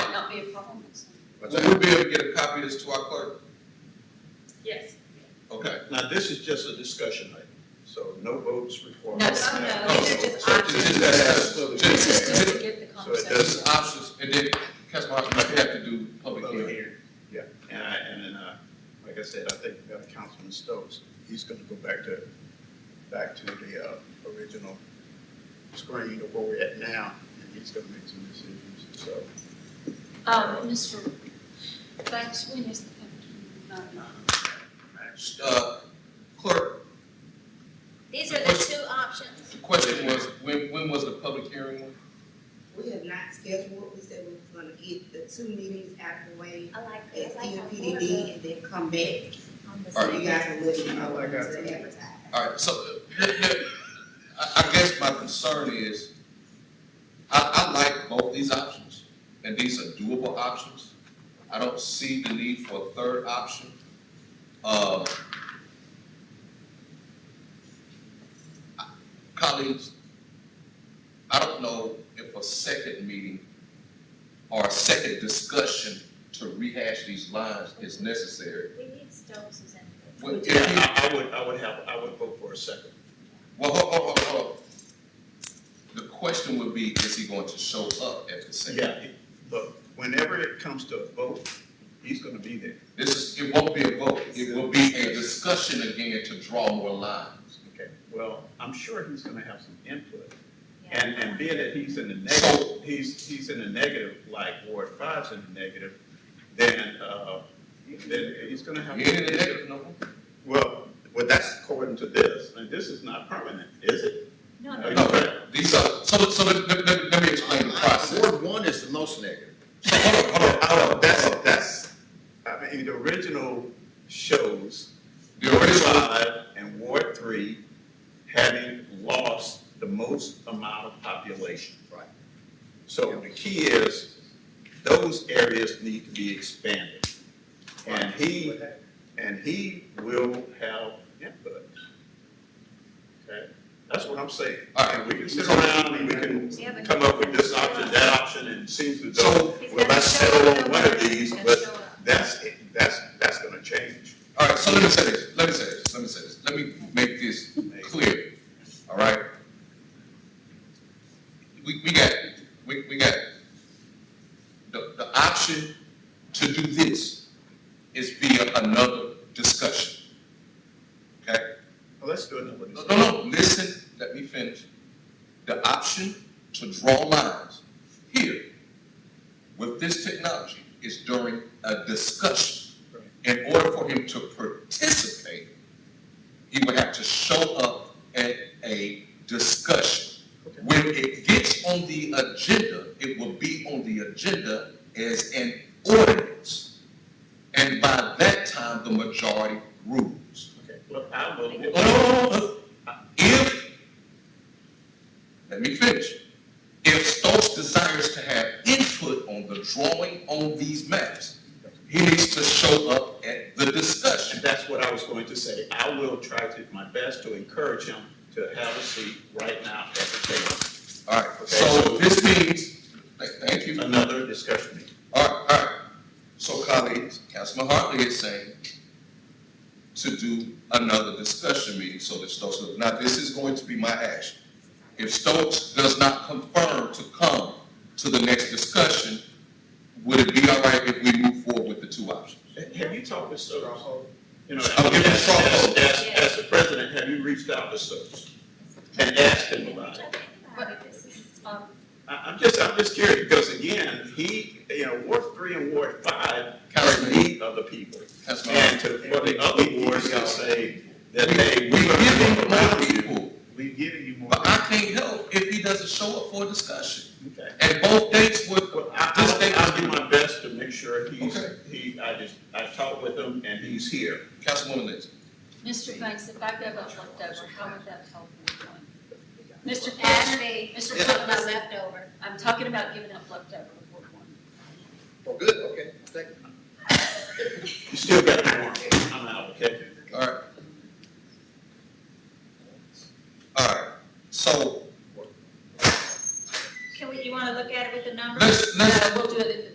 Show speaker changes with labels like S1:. S1: be a problem. so.
S2: Will we be able to get a copy of this to our clerk?
S3: Yes.
S2: Okay.
S4: Now, this is just a discussion item, so no votes required.
S1: No, no, no, these are just
S2: So
S1: options.
S2: just as-
S1: This is just
S2: just-
S1: to get the
S4: So it
S1: conversation.
S2: Just options, and then Councilman Hodges might have to do public
S4: Public
S2: hearing.
S4: hearing. Yeah, and I, and then, uh, like I said, I think uh, Councilman Stokes, he's gonna go back to, back to the, uh, original screen of where we're at now, and he's gonna make some decisions, so.
S1: Um, Mr. Banks, when is the public hearing?
S2: Uh, clerk,
S5: These are the two options.
S2: the question was, when, when was the public hearing? one?
S6: We have not scheduled, what we said we was gonna get the two meetings out of the way
S5: I like,
S6: at
S5: I like how
S6: CMPDD and then come back.
S5: on the
S2: All
S6: So
S2: right.
S6: you guys are looking, I want
S4: got
S6: to advertise.
S2: All right, so, uh, I, I guess my concern is, I, I like both these options, and these are doable options. I don't see the need for a third option. Uh, colleagues, I don't know if a second meeting or a second discussion to rehash these lines is necessary.
S5: We need Stokes's input.
S2: Well, if
S4: Yeah,
S2: you-
S4: I, I would, I would have, I would vote for a second.
S2: Well, hold, hold, hold, hold. The question would be, is he going to show up at the same?
S4: Yeah, it- but whenever it comes to a vote, he's gonna be there,
S2: This is, it won't be a vote, it will be a discussion again to draw more lines.
S4: okay? Well, I'm sure he's gonna have some input.
S5: Yeah.
S4: And, and being that he's in the negative, he's, he's in the negative, like Ward Five's in the negative, then, uh, then he's gonna have.
S2: You ain't in the negative, no?
S4: Well, well, that's according to this, and this is not permanent, is it?
S5: No,
S4: Are
S5: no,
S4: you
S2: No,
S4: correct?
S2: these are, so, so let, let, let- let me explain the process.
S7: Ward one is the most negative.
S4: So, hold on, hold on, hold on, that's, that's, I mean, the original shows
S2: The
S4: Ward
S2: original,
S4: Five and Ward Three having lost the most amount of population.
S7: Right.
S4: So the key is, those areas need to be expanded. And he, and he will have input. Okay, that's what I'm saying.
S2: All right.
S4: And we can sit around and we can come up with this option, that option, and seems to
S2: So-
S4: go,
S5: He's
S4: well,
S5: gonna
S4: let's
S5: show
S4: settle
S5: up
S4: on one of
S5: and
S4: these,
S5: show
S4: but
S5: up.
S4: that's, that's, that's gonna change.
S2: all right, so let me say this, let me say this, let me say this, let me make this clear, all right? We, we got, we, we got, the, the option to do this is via another discussion. Okay?
S4: Well, Let's do another
S2: No,
S4: discussion.
S2: no, no, listen, let me finish. The option to draw lines here with this technology is during a discussion.
S4: Right.
S2: In order for him to participate, he would have to show up at a discussion.
S4: Okay.
S2: When it gets on the agenda, it will be on the agenda as an ordinance. And by that time, the majority rules.
S4: Okay, well, I will.
S2: Oh, no, no, no, no. If, let me finish. If Stokes desires to have input on the drawing on these maps, he needs to show up at the
S4: And
S2: discussion.
S4: that's what I was going to say. I will try to, my best to encourage him to have a seat right now at the
S2: All right, so this means, th- thank you.
S4: table. Another discussion meeting.
S2: All right, all right. So colleagues, Councilman Hartley is saying to do another discussion meeting so that Stokes, now this is going to be my action. If Stokes does not confirm to come to the next discussion, would it be all right if we move forward with the two options?
S4: Have you talked to Stokes? You know,
S2: I'll give him a
S4: as,
S2: straw
S4: as,
S2: poll.
S4: as- as the president, have you reached out to Stokes? And asked him about it?
S5: But this is-
S1: Um,
S4: I, I'm just, I'm just curious, because again, he, you know, Ward three and Ward five are in
S2: Councilman,
S4: need of the people.
S2: Councilman
S4: And
S2: Hartley.
S4: to, for the other wards to say that they,
S2: We
S4: we are
S2: give him
S4: gonna
S2: more
S4: allow you.
S2: people,
S4: We're giving you more.
S2: but I can't help if he doesn't show up for a discussion.
S4: Okay.
S2: And both dates were,
S4: Well, I,
S2: this
S4: I'll,
S2: date
S4: I'll
S2: was
S4: do my best to make sure he's,
S2: Okay.
S4: he, I just, I talked with him and he's here.
S2: Councilwoman Lynch.
S1: Mr. Banks, if I go up left over, how would that help? with one? Mr.
S5: Ask
S1: Patrick,
S5: me,
S1: Mr.
S5: what am I
S1: Patrick,
S5: left over?
S1: I'm talking about giving up leftover with Ward one.
S7: Oh, good, okay, thank you.
S4: You still got the
S1: Uh,
S4: warrant.